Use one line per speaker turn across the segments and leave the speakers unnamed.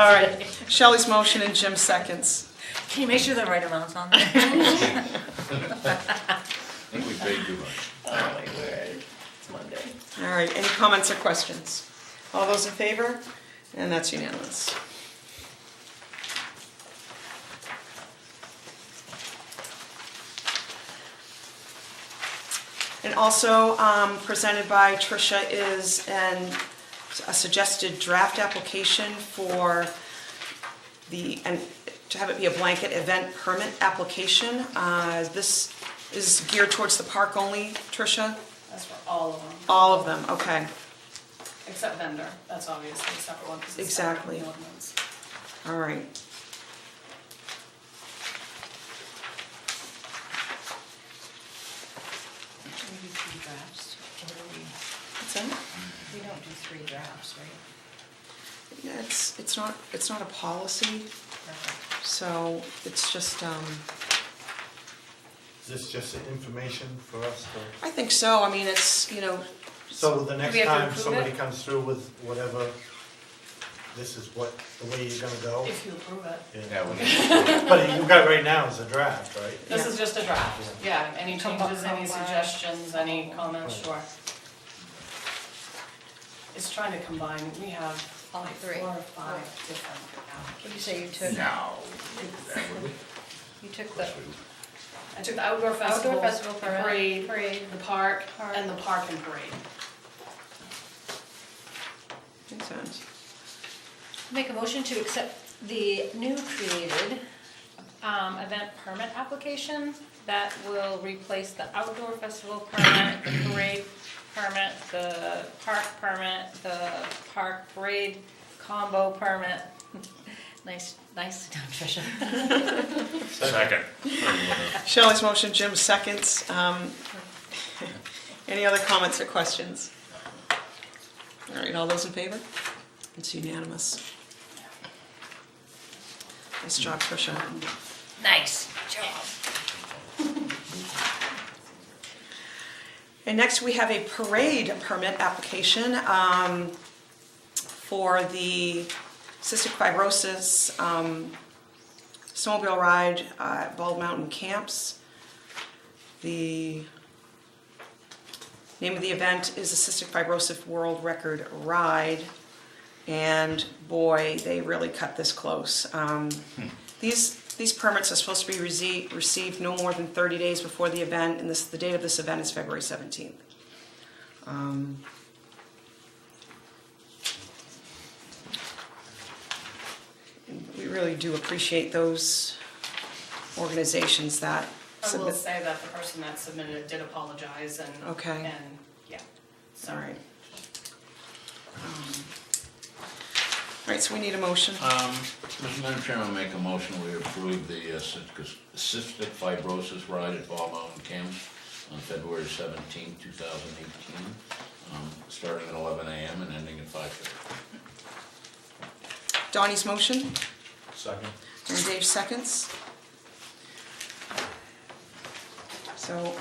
All right, Shelley's motion and Jim seconds.
Can you make sure the right amount's on there?
I think we paid too much.
Oh my word, it's Monday.
All right, any comments or questions? All those in favor? And that's unanimous. And also um, presented by Tricia is an, a suggested draft application for the, and to have it be a blanket event permit application. Uh, This is geared towards the park only, Tricia?
That's for all of them,
All of them, okay.
except vendor, that's obviously a separate one, because it's separate from
Exactly.
the ordinance.
All right.
Should we do three drafts? Or do we,
What's that?
we don't do three drafts, right?
Yeah, It's, it's not, it's not a policy,
Perfect.
so it's just, um,
Is this just information for us to,
I think so, I mean, it's, you know,
so the next
we have to
time
approve
somebody
it?
comes through with whatever, this is what, the way you're gonna go?
If you approve it.
Yeah,
Yeah.
we need to-
But you got right now is a draft, right?
This is just a draft, yeah, any changes, any suggestions, any comments, sure. It's trying to combine, we have
All
like
three.
four or five different applications.
What do you say you took,
no. That would be-
you took the
I took the outdoor festival,
outdoor festival
the
parade?
parade,
Parade.
the park,
Park.
and the park and parade.
makes sense.
Make a motion to accept the new created um, event permit application that will replace the outdoor festival permit, the parade permit, the park permit, the park parade combo permit. Nice, nice done, Tricia.
Second.
Shelley's motion, Jim seconds. Um, Any other comments or questions? All right, all those in favor? It's unanimous. Nice job, Tricia.
Nice job.
And next, we have a parade permit application um, for the cystic fibrosis um, snowmobile ride uh, at Bald Mountain Camps. The name of the event is the Cystic Fibrosis World Record Ride. And boy, they really cut this close. Um, These, these permits are supposed to be rece- received no more than 30 days before the event, and this, the date of this event is February 17th. Um, We really do appreciate those organizations that
I will
submit-
say that the person that submitted it did apologize and,
Okay.
and, yeah,
All
sorry.
right. Um, All right, so we need a motion.
Um, Mr. Madam Chairman, I make a motion, we approve the uh, cystic cystic fibrosis ride at Ball Mountain Camps on February seventeenth, two thousand eighteen, um, starting at eleven AM and ending at five thirty.
Donnie's motion,
Second.
and Dave seconds. So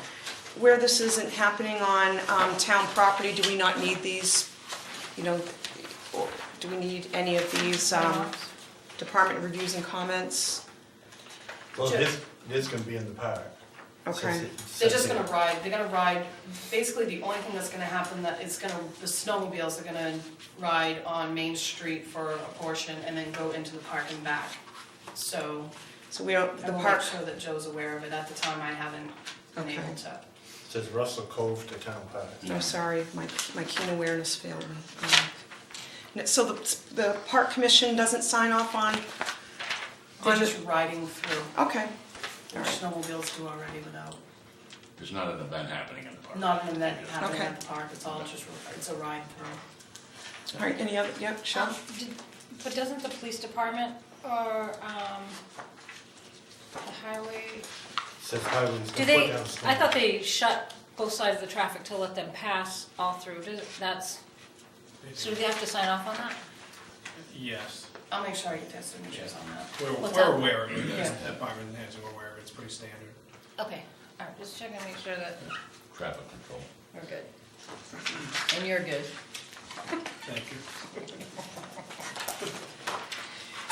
where this isn't happening on um, town property, do we not need these, you know, or do we need any of these um, department reviews and comments?
Well, this, this can be in the park.
Okay.
They're just gonna ride, they're gonna ride, basically the only thing that's gonna happen that is gonna, the snowmobiles are gonna ride on Main Street for a portion and then go into the park and back. So
So we don't,
I
the
will make
park,
sure that Joe's aware of it. At the time, I haven't been
Okay.
able to.
Says Russell Cove to Town Park.
I'm sorry, my, my keen awareness failed me. Um, n- So the, the park commission doesn't sign off on,
They're
On the-
just riding through,
okay, all
which
right.
snowmobiles do already without,
There's not an event happening in the park.
not an event happening
Okay.
at the park, it's all just, it's a ride through.
All right, any other, yeah, Sean?
Um, did- But doesn't the police department or um, the highway,
Says highways
do
can put
they,
down
I thought they shut both sides of the traffic to let them pass all through, Does- that's, so do they have to sign off on that?
Yes,
I'll make sure I get their signatures on that.
we're,
What's
we're
up?
aware of it,
Yeah.
the department heads are aware of it, it's pretty standard.
Okay, all right, just checking, to make sure that
Traffic control.
we're good. And you're good.
Thank you.